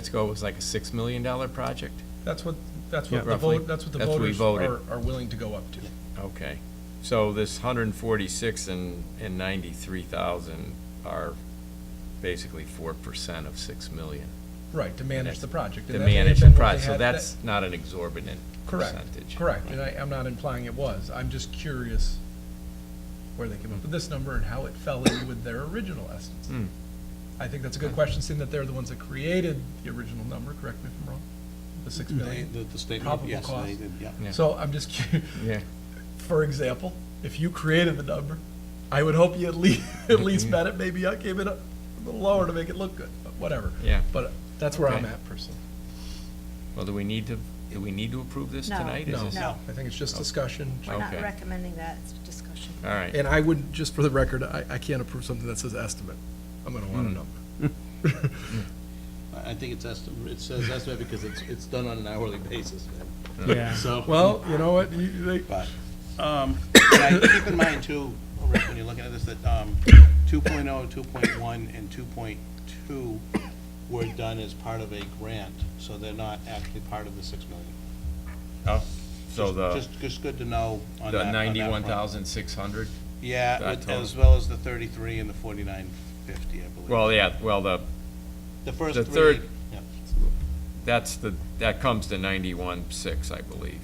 Let's go, it was like a $6 million project? That's what, that's Yeah. what the Roughly. vote, that's what the That's what we voters voted. are, are willing to go up to. Okay. So this 146 and, and 93,000 are basically 4% of 6 million. Right, to manage the project. To and that may have manage the been what they project, so had- that- that's not an exorbitant percentage. Correct, correct, and I, I'm not implying it was, I'm just curious where they came up with this number and how it fell in with their original estimates. Hmm. I think that's a good question, seeing that they're the ones that created the original number, correct me if I'm wrong, the six They- million. The the statement, Probable yes, cause. they did, yeah. Yeah. So I'm just curious, Yeah, for example, if you created the number, I would hope you at least, at least Mm-hmm. met it, maybe I came in a little lower to make it look good, but whatever. Yeah. But that's where I'm Okay. at personally. well, do we need to, do we need to approve this No. tonight? Is No, this- No. I think it's Oh. just discussion, We're not Okay. recommending that, it's discussion. All right. And I would, just for the record, I, I can't approve something that says estimate. I'm gonna Mm. want a number. I I think it's estimate, it says estimate because it's, it's done on an hourly basis, man. Yeah. So. Well, you know what, you, they, But, um, and I- keep in mind too, Rick, when you're looking at this, that, um, 2.0, 2.1, and two point two were done as part of a grant, so they're not actually part of the six million. Oh, So Just- the, Just, just good to know on that. the on that front. 91,600? Yeah, that with- total. as well as the thirty-three and the forty-nine fifty, I believe. Well, yeah, well, the, The first the three. third- yeah. that's the, that comes to 91,6, I believe.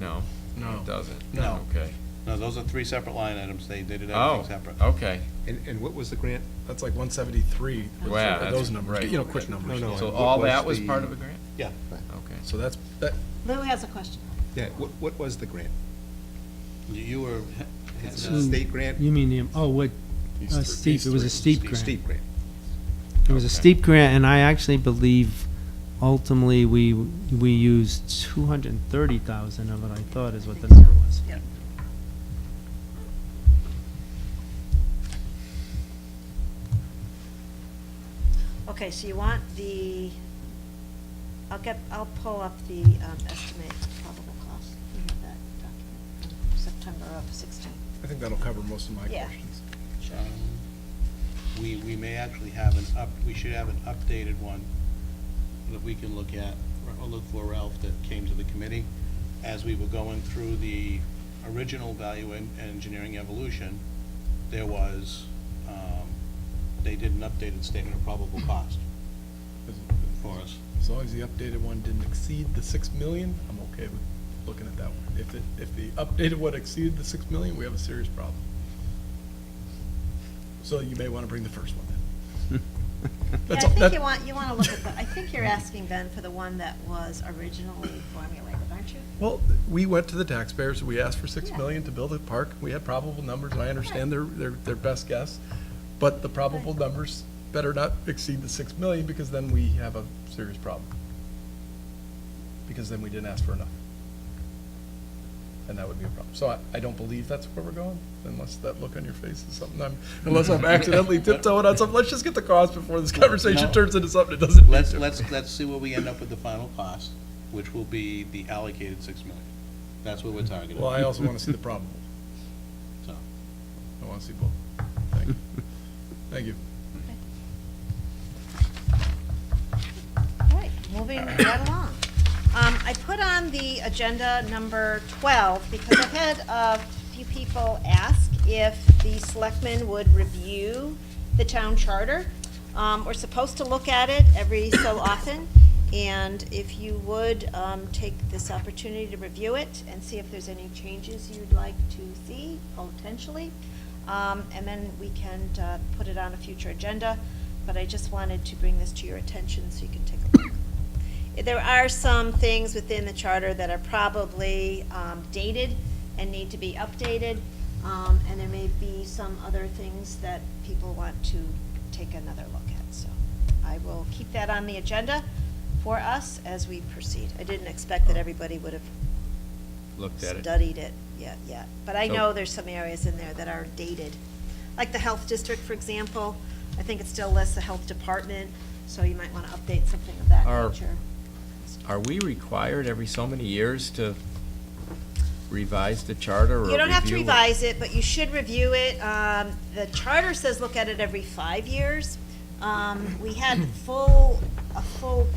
No? It doesn't? No. Okay. No, those are three separate line items. They, they did Oh, everything separate. okay. And, and what was the grant? that's like one seventy-three, Wow, those that's- numbers, right. you know, quick numbers. No, no. So What all was that was the- part of a grant? Yeah. Okay. So that's, that, Lou has a question. Yeah, what, what was the grant? You- You were, It's uh, a Hmm. state grant? You mean, the- oh, what, uh, steep, it was a steep grant. Steep grant. It was a Okay. steep grant, and I actually believe ultimately we, we used two hundred and thirty thousand of it, I thought is what the number was. Yep. Okay, so you want the, I'll get, I'll pull up the um, estimate probable cost, you have that document, from September of 16. I think that'll cover most of my Yeah. questions. um, we, we may actually have an up, we should have an updated one that we can look at, or look for Ralph that came to the committee. As we were going through the original value en- engineering evolution, there was, um, they did an updated statement of probable cost for us. As long as the updated one didn't exceed the six million, I'm okay with looking at that one. If it, if the updated one exceeded the six million, we have a serious problem. So you may wanna bring the first one then. Yeah, That's I all- think that- you want, you want to look at the, I think you're asking, Ben, for the one that was originally formulated, aren't you? Well, we went to the taxpayers, we asked for six Yeah. million to build a park, we had probable numbers, and I understand their, their, their best guess, but the probable numbers better not exceed the six million, because then we have a serious problem. Because then we didn't ask for enough. And that would be a problem. So I, I don't believe that's where we're going, unless that look on your face is something I'm, unless I'm accidentally tiptoeing on something, let's just get the cost before this conversation No. turns into something it doesn't need Let's, to. let's, let's see where we end up with the final cost, which will be the allocated six million. That's what we're targeting. Well, I also wanna see the probable, So, I wanna see both. Thank you. Thank you. All right, moving right along. Um, I put on the agenda number 12 because I've had a few people ask if the selectmen would review the town charter. Um, We're supposed to look at it every so often, and if you would um, take this opportunity to review it and see if there's any changes you'd like to see potentially, Um, and then we can uh, put it on a future agenda but I just wanted to bring this to your attention so you can take a look. There are some things within the charter that are probably um, dated and need to be updated, um, and there may be some other things that people want to take another look at, so I will keep that on the agenda for us as we proceed. I didn't expect that everybody would have Looked at it. studied it yet, yet. But I So- know there's some areas in there that are dated. Like the health district, for example, I think it still lists the health department, so you might want to update something of that Are- nature. Are we required every so many years to revise the charter or You don't have to review it? revise it, but you should review it. Um, The charter says look at it every five years. Um, We had full, a full